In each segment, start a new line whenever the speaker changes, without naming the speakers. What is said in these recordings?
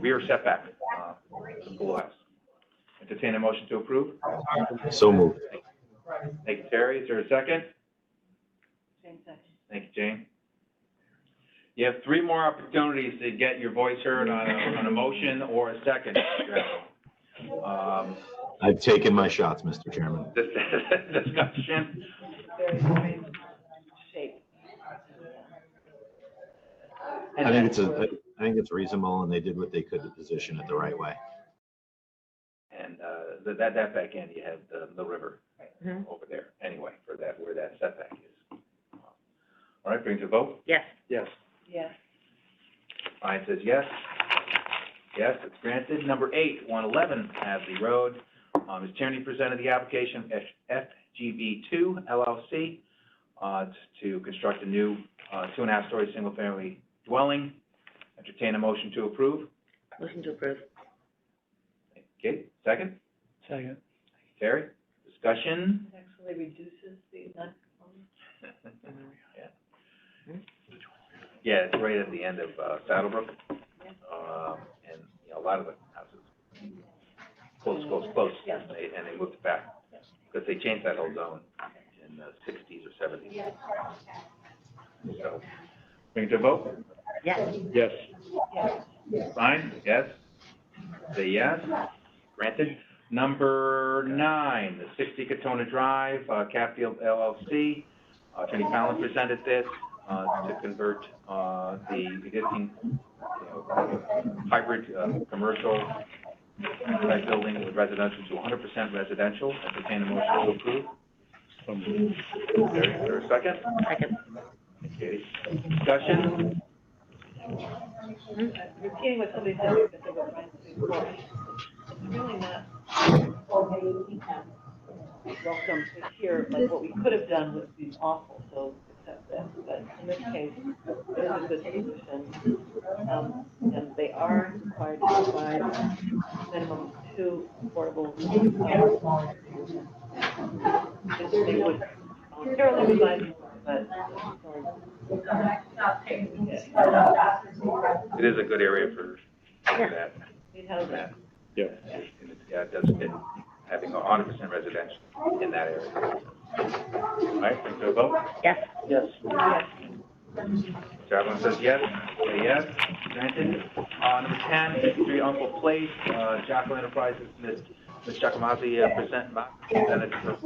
rear setback, uh, from Blue House. Entertain a motion to approve.
So moved.
Thank you, Terry. Is there a second? Thank you, Jane. You have three more opportunities to get your voice heard on a, on a motion or a second. Cheryl. Um,
I've taken my shots, Mr. Chairman.
This discussion,
Shape.
I think it's a, I think it's reasonable and they did what they could to position it the right way.
and, uh, that- that, that back end, you have the, the river
Mhm.
over there anyway, for that, where that setback is. All right, brings a vote.
Yes.
Yes.
Yes.
Ryan says yes. Yes, it's granted. Number eight, one eleven Hadley Road. Um, Ms. Tierney presented the application F- FGB two LLC, uh, to construct a new, uh, two and a half story single family dwelling. Entertain a motion to approve.
Motion to approve.
Kate, second?
Second.
Terry? Discussion?
Actually reduces the non.
Yeah, it's right at the end of, uh, Saddlebrook. Um, and, you know, a lot of the houses, close, close, close, and they, and they moved back, because they changed that whole zone in the sixties or seventies. So, bring it to a vote.
Yes.
Yes.
Fine, yes? Say yes, granted. Number nine, the sixty Katona Drive, uh, Capfield LLC. Uh, Attorney Fallon presented this, uh, to convert, uh, the existing, you know, hybrid, uh, commercial type building with residential to hundred percent residential. Entertain a motion to approve.
So moved.
There, is there a second?
Second.
Katie, discussion?
uh, Repeating what somebody said, that they were trying to before, it's really not welcome to hear, like, what we could have done would be awful, so accept that, but in this case, it is a good solution. Um, and they are required to provide minimum two affordable, um, if they would, um, fairly reliable, but, um,
It is a good area for for that.
need housing.
that.
Yeah.
And it's, yeah, it does fit having a hundred percent residential in that area. All right, bring to a vote.
Yes.
Yes.
Chairman says yes, say yes, granted. Uh, number ten, fifty-three Uncle Place, uh, Jocko Enterprises, Ms. Ms. Jacomazi, uh, present, ma- presented her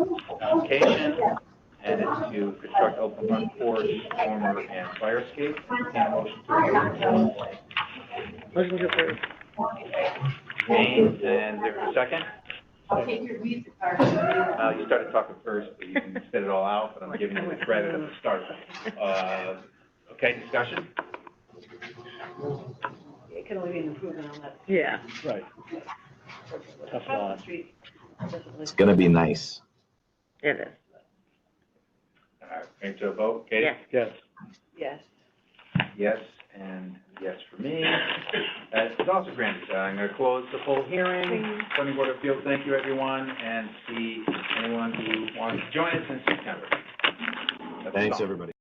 application, and it's to construct open front porch, dormer, and fire escape. Entertain a motion to approve.
Motion to approve.
James, and there's a second? Uh, you started talking first, but you can spit it all out, but I'm giving you the credit at the start. Uh, okay, discussion?
It can only be an improvement on that.
Yeah.
Right. Tough lot.
It's gonna be nice.
It is.
All right, bring it to a vote. Katie?
Yes.
Yes.
Yes.
Yes, and yes for me. Uh, it's also granted. Uh, I'm gonna close the full hearing. Planning Board of Appeals, thank you, everyone, and see anyone who wants to join us in September. That's
Thanks,
all.
everybody.